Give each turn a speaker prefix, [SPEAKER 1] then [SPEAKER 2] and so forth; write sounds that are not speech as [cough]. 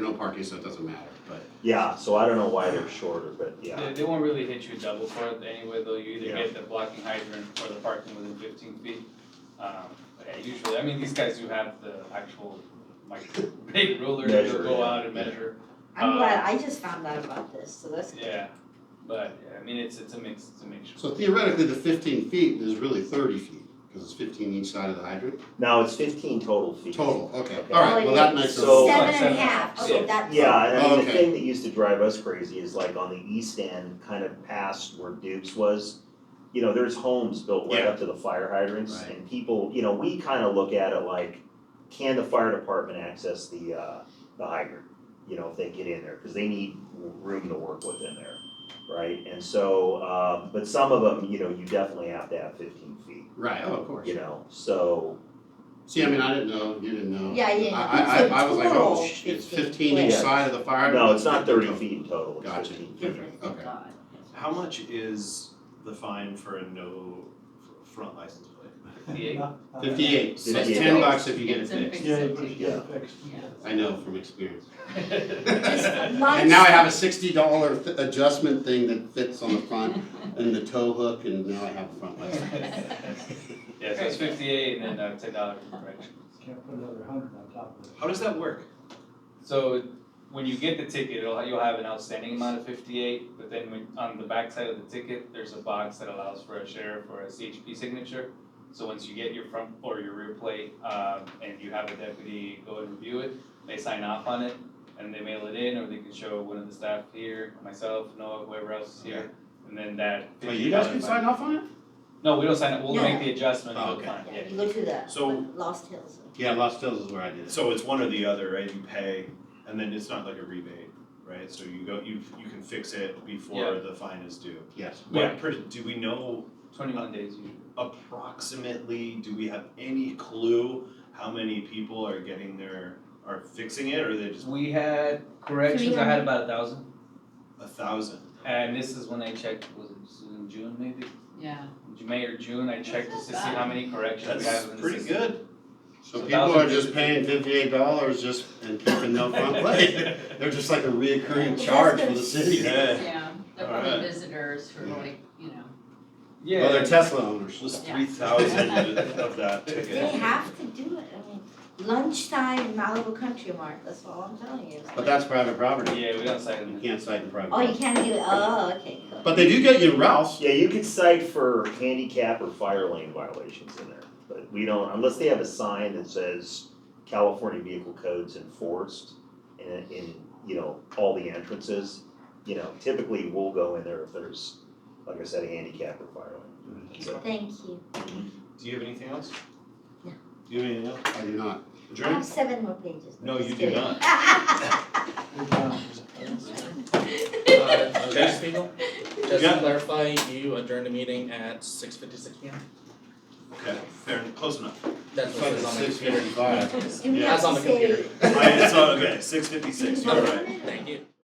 [SPEAKER 1] No parking, so it doesn't matter, but
[SPEAKER 2] Yeah, so I don't know why they're shorter, but yeah,
[SPEAKER 3] They, they won't really hit you double for it anyway, though, you either
[SPEAKER 2] Yeah.
[SPEAKER 3] get the blocking hydrant or the parking within fifteen feet. Um, but yeah, usually, I mean, these guys do have the actual, like, [laughs] big ruler,
[SPEAKER 2] Measure,
[SPEAKER 3] they'll go
[SPEAKER 2] yeah.
[SPEAKER 3] out and measure,
[SPEAKER 4] I'm
[SPEAKER 3] Uh,
[SPEAKER 4] glad, I just found out about this, so that's good.
[SPEAKER 3] yeah. But, yeah, I mean, it's, it's a mix, it's a mixture.
[SPEAKER 1] so theoretically, the fifteen feet is really thirty feet because it's fifteen each side of the hydrant.
[SPEAKER 2] now it's fifteen total feet.
[SPEAKER 1] Total, okay,
[SPEAKER 2] Okay.
[SPEAKER 1] all right. Well, that makes sense.
[SPEAKER 2] So-
[SPEAKER 4] Seven and
[SPEAKER 3] Seven.
[SPEAKER 4] a half,
[SPEAKER 3] So-
[SPEAKER 4] okay, that's.
[SPEAKER 2] Yeah, and I mean,
[SPEAKER 1] Okay.
[SPEAKER 2] the thing that used to drive us crazy is like on the east end, kind of past where Duke's was, you know, there's homes built right
[SPEAKER 1] Yeah.
[SPEAKER 2] up to the fire hydrants
[SPEAKER 1] Right.
[SPEAKER 2] and people, you know, we kind of look at it like, can the fire department access the uh, the hydrant? You know, if they get in there, because they need room to work with in there, right? And so, uh, but some of them, you know, you definitely have to have fifteen feet,
[SPEAKER 1] Right, oh, of course.
[SPEAKER 2] you know, so,
[SPEAKER 1] See, I mean, I didn't know, you didn't know.
[SPEAKER 4] Yeah, yeah,
[SPEAKER 1] I, I,
[SPEAKER 4] it's
[SPEAKER 1] I, I was like,
[SPEAKER 4] total
[SPEAKER 1] oh, sh- it's
[SPEAKER 4] 15
[SPEAKER 1] fifteen each
[SPEAKER 2] Yeah.
[SPEAKER 1] side of the fire hydrant.
[SPEAKER 2] no, it's not thirty feet in total, it's
[SPEAKER 1] Gotcha.
[SPEAKER 2] 15.
[SPEAKER 4] Different, thank
[SPEAKER 1] Okay.
[SPEAKER 4] God.
[SPEAKER 5] How much is the fine for a no f- front license plate?
[SPEAKER 2] [laughs]
[SPEAKER 3] Fifty-eight, [laughs]
[SPEAKER 1] Fifty-eight, so it's
[SPEAKER 2] 58.
[SPEAKER 1] ten bucks if you get it
[SPEAKER 6] It's a
[SPEAKER 1] fixed.
[SPEAKER 6] fix-
[SPEAKER 7] Yeah, you put- yeah, fixed.
[SPEAKER 6] Yeah.
[SPEAKER 1] I know from experience.
[SPEAKER 4] Just lunch.
[SPEAKER 1] And now I have a sixty dollar adjustment thing that fits on the front and the tow hook and now I have a front light.
[SPEAKER 3] [laughs] yeah, so it's fifty-eight and then, uh, ten dollars for correction.
[SPEAKER 7] Can't put another hundred on top of it.
[SPEAKER 5] How does that work?
[SPEAKER 3] So when you get the ticket, it'll, you'll have an outstanding amount of fifty-eight, but then when, on the backside of the ticket, there's a box that allows for a sheriff or a CHP signature. So once you get your front or your rear plate, um, and you have a deputy go and review it, they sign off on it, and they mail it in, or they can show one of the staff here, myself, Noah, whoever else is here, and then that.
[SPEAKER 1] Oh, you guys can sign off on it?
[SPEAKER 3] No, we don't sign it, we'll
[SPEAKER 4] No.
[SPEAKER 3] make the adjustment,
[SPEAKER 1] Oh,
[SPEAKER 3] we'll
[SPEAKER 1] okay.
[SPEAKER 3] find, yeah.
[SPEAKER 4] You go through that,
[SPEAKER 5] So-
[SPEAKER 4] Lost Hills.
[SPEAKER 1] Yeah, Lost Hills is where I did it.
[SPEAKER 5] So it's one or the other, right? You pay, and then it's not like a rebate, right? So you go, you you can fix it before
[SPEAKER 3] Yeah.
[SPEAKER 5] the fine is due.
[SPEAKER 1] Yes.
[SPEAKER 3] Yeah.
[SPEAKER 5] What per, do we know
[SPEAKER 3] Twenty-one days usually.
[SPEAKER 5] approximately? Do we have any clue how many people are getting their are fixing it, or they just
[SPEAKER 3] We had corrections, I had about a thousand.
[SPEAKER 5] a thousand?
[SPEAKER 3] Uh, And this is when I checked, was it just in June maybe?
[SPEAKER 6] Yeah.
[SPEAKER 3] May or June, I checked just to see how many corrections we
[SPEAKER 5] That's
[SPEAKER 3] have in the
[SPEAKER 5] pretty
[SPEAKER 3] system.
[SPEAKER 5] good.
[SPEAKER 1] So
[SPEAKER 3] So
[SPEAKER 1] people are
[SPEAKER 3] thousand-
[SPEAKER 1] just paying fifty-eight dollars just and keeping no
[SPEAKER 5] [laughs]
[SPEAKER 1] front light. They're just like a reoccurring
[SPEAKER 4] Well,
[SPEAKER 1] charge for the
[SPEAKER 4] that's
[SPEAKER 1] city.
[SPEAKER 5] Yeah.
[SPEAKER 6] Yeah, they're
[SPEAKER 5] All right.
[SPEAKER 6] probably visitors for
[SPEAKER 1] Yeah.
[SPEAKER 6] like, you know,
[SPEAKER 3] Yeah.
[SPEAKER 1] Well, they're Tesla owners.
[SPEAKER 5] Just
[SPEAKER 6] Yeah.
[SPEAKER 1] [laughs]
[SPEAKER 5] three thousand of that ticket.
[SPEAKER 4] They have to do it, I mean, lunchtime in Malibu Country Mart, that's all I'm telling you. It's
[SPEAKER 1] But
[SPEAKER 4] like,
[SPEAKER 1] that's private property.
[SPEAKER 3] Yeah, we don't cite
[SPEAKER 1] You
[SPEAKER 3] them.
[SPEAKER 1] can't cite in private.
[SPEAKER 4] Oh, you
[SPEAKER 1] property.
[SPEAKER 4] can't do it, oh, okay, cool.
[SPEAKER 1] But they do get you in Ralph's.
[SPEAKER 2] Yeah, you could cite for handicap or fire lane violations in there, but we don't, unless they have a sign that says California vehicle codes enforced in, in, you know, all the entrances, you know, typically we'll go in there if there's, like I said, a handicap or fire
[SPEAKER 4] Mm-hmm.
[SPEAKER 2] lane. So,
[SPEAKER 4] Thank you,
[SPEAKER 5] Do you have anything else?
[SPEAKER 4] No.
[SPEAKER 5] Do you have anything else?
[SPEAKER 1] I do not.
[SPEAKER 4] I have
[SPEAKER 5] Adjourn?
[SPEAKER 4] seven more pages.
[SPEAKER 5] No,
[SPEAKER 4] Just
[SPEAKER 5] you do
[SPEAKER 4] kidding. [laughs]
[SPEAKER 5] not.
[SPEAKER 7] We're done.
[SPEAKER 8] Uh,
[SPEAKER 5] Okay.
[SPEAKER 8] Judge Spiegel, just
[SPEAKER 5] Yeah.
[SPEAKER 8] to clarify, you adjourned the meeting at six fifty-six P M?
[SPEAKER 5] Okay, fair, close enough.
[SPEAKER 8] That's what it says on the
[SPEAKER 1] Six
[SPEAKER 8] computer.
[SPEAKER 1] fifty-five.
[SPEAKER 4] Do we
[SPEAKER 8] Yeah,
[SPEAKER 4] have
[SPEAKER 8] That's on
[SPEAKER 4] to
[SPEAKER 8] the
[SPEAKER 4] say-
[SPEAKER 8] computer.
[SPEAKER 5] I, it's, uh, okay, six fifty-six, you're right.
[SPEAKER 8] Thank you.